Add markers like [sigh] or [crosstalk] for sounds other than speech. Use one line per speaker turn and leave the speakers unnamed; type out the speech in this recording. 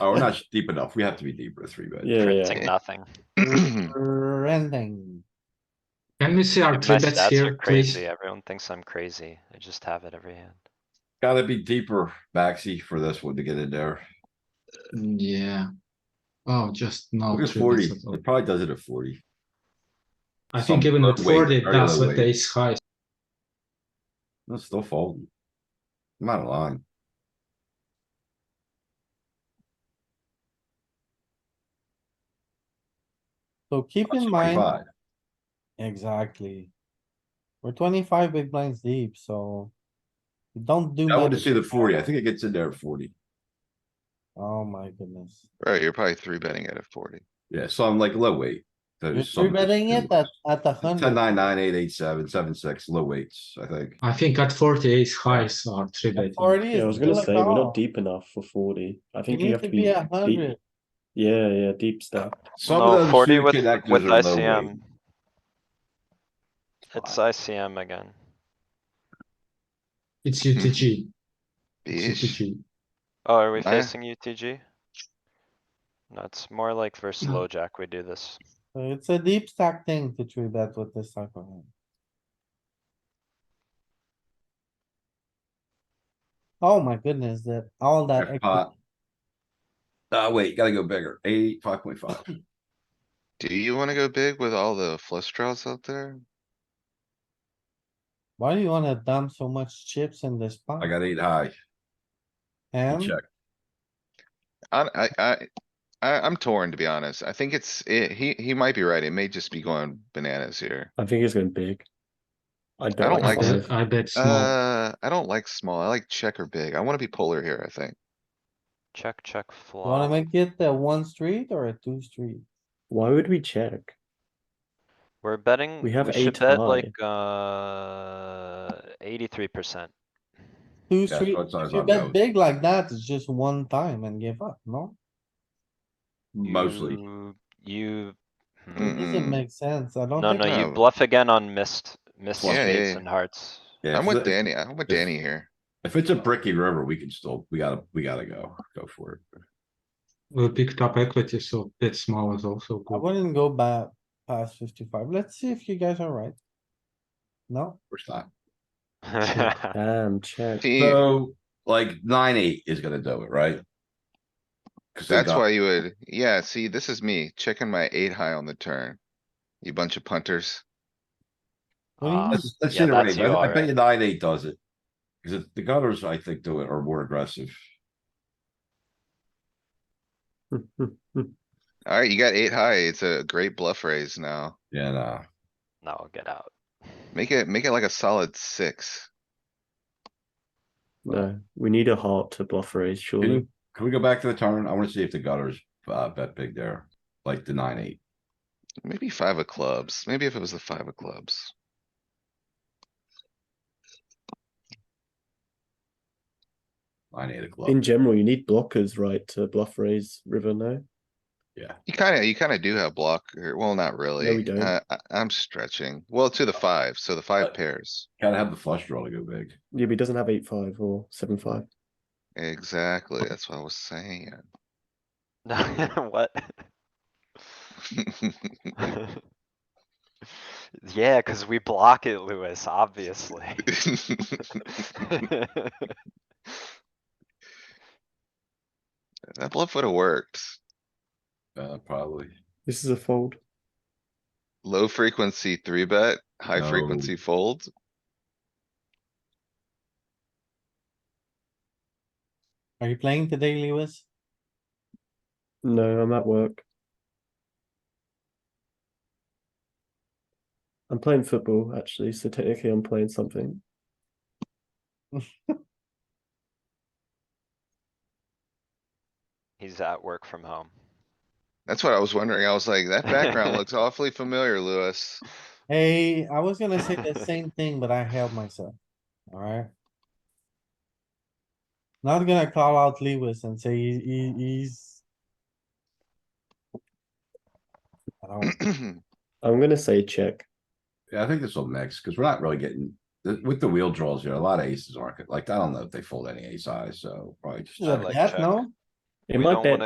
Oh, we're not [laughs] deep enough. We have to be deeper, three bet.
Yeah, yeah.
printing nothing.
[clears throat]
Renting.
Can we see our
My
three bets
stats are
here, please?
crazy. Everyone thinks I'm crazy. I just have it every hand.
Gotta be deeper, Maxi, for this one to get in there.
Yeah. Oh, just no.
Look at
three
forty.
bets at all.
It probably does it at forty.
I think
some
even with
low weight,
forty,
very
that's
low
what
weight.
ace high.
That's still folding. I'm out of line.
So keep in mind,
25.
exactly. We're twenty-five big blinds deep, so. Don't do.
I want to
much.
see the forty. I think it gets in there at forty.
Oh my goodness.
Right, you're probably three betting out of forty.
Yeah, so I'm like low weight.
You're three betting it at, at the
Ten,
hundred,
nine, nine, eight, eight, seven, seven, six, low weights, I think.
I think at forty, ace highs are three betting.
forty
Yeah, I
is
was gonna
still a
say we're
call.
not deep enough for forty. I
You
think you
need
have
to be a
deep.
hundred.
Yeah, yeah, deep stuff.
Some of
No,
those
forty
few
with,
connectors
with
are low weight.
ICM. It's ICM again.
It's UTG. It's
Beesh.
UTG.
Oh, are
Eh.
we
Nah.
facing UTG? No, it's more like versus
No.
Mm.
low jack we do this.
So It's a deep stack thing to three bet with this type of hand. Oh my goodness, that, all that.
Jackpot.
equity.
Ah, wait, gotta go bigger. Eight, five point five.
Do you wanna go big with all the flush draws out there?
Why do you wanna dump so much chips in this pot?
I got eight high.
And
Check.
I, I, I, I, I'm torn, to be honest. I think it's, it, he, he might be right. It may just be going bananas here.
I think it's going big. I don't,
don't
like
like
five.
it.
I- I bet small.
Uh, I don't like small. I like check or big. I wanna be polar here, I think.
Check, check,
you wanna
flop.
make it a one street or a two street?
Why would we check?
We're betting, we
We have
should
eight
bet like, uh, eighty-three percent.
Two
Yeah,
street,
so it's-
if
it's
you
on
bet
those.
big like that, it's just one time and give up, no?
Mostly. Mm.
You, hmm.
It doesn't
Mm-mm.
make sense, I don't
no,
think,
no, you
No.
bluff again on missed, missed
Yeah, yeah,
spades
yeah.
and hearts. [laughs]
Yeah,
I'm
if
with
the-
Danny. I'm with
if-
Danny here.
If it's a bricky river, we can still, we gotta, we gotta go, go for it.
We picked up equity, so bet small is also
I
good.
wouldn't go back past fifty-five, let's see if you guys are right. No?
First time.
Damn, check.
See,
So like nine, eight is gonna do it, right? Cause they
that's
got-
why you would, yeah, see, this is me checking my eight high on the turn. You bunch of punters.
What do you
Uh,
mean?
Let's, let's
Yeah, that's
iterate.
you,
I I bet
alright.
you nine, eight does it. Cause it- the gutters, I think, do it are more aggressive.
Alright, you got eight high. It's a great bluff raise now.
Yeah, nah.
No, get out.
Make it, make it like a solid six.
[laughs] No, we need a heart to bluff raise, surely.
Can we go back to the turn? I wanna see if the gutters, uh, bet big there, like the nine, eight.
Maybe five of clubs. Maybe if it was the five of clubs.
Nine, eight of
In
clubs.
general, you need blockers, right, to bluff raise river, no?
You kinda, you kinda do have block, or- well, not really.
don't.
Uh, I, I'm stretching. Well, to the five, so the
Uh,
five pairs.
Gotta have the flush draw to go big.
Yeah, but he doesn't have eight five or seven five.
Exactly, that's what I was saying.
[laughs] What? Yeah, cuz we block it, Lewis, obviously. [laughs]
That bluff would have worked.
Uh, probably.
This is a fold.
Low frequency three bet, high
No.
frequency fold.
Are you playing today, Lewis?
No, I'm at work. I'm playing football actually, so technically I'm playing something.
He's at work from home.
That's what I was wondering. I was like, that background looks awfully familiar, [clears throat] Lewis.
Hey, I was gonna say
[laughs]
the same thing, but I held myself, alright? Not gonna call out Lewis and say he, he- he's. I don't-
I'm gonna say check.
Yeah, I think this will mix, cause we're not really getting, th- with the wheel draws here, a lot of aces aren't, good. like, I don't know if they fold any ace eyes, so probably just.
Is that
like
that,
check.
no?
It
We
might
don't
bet
wanna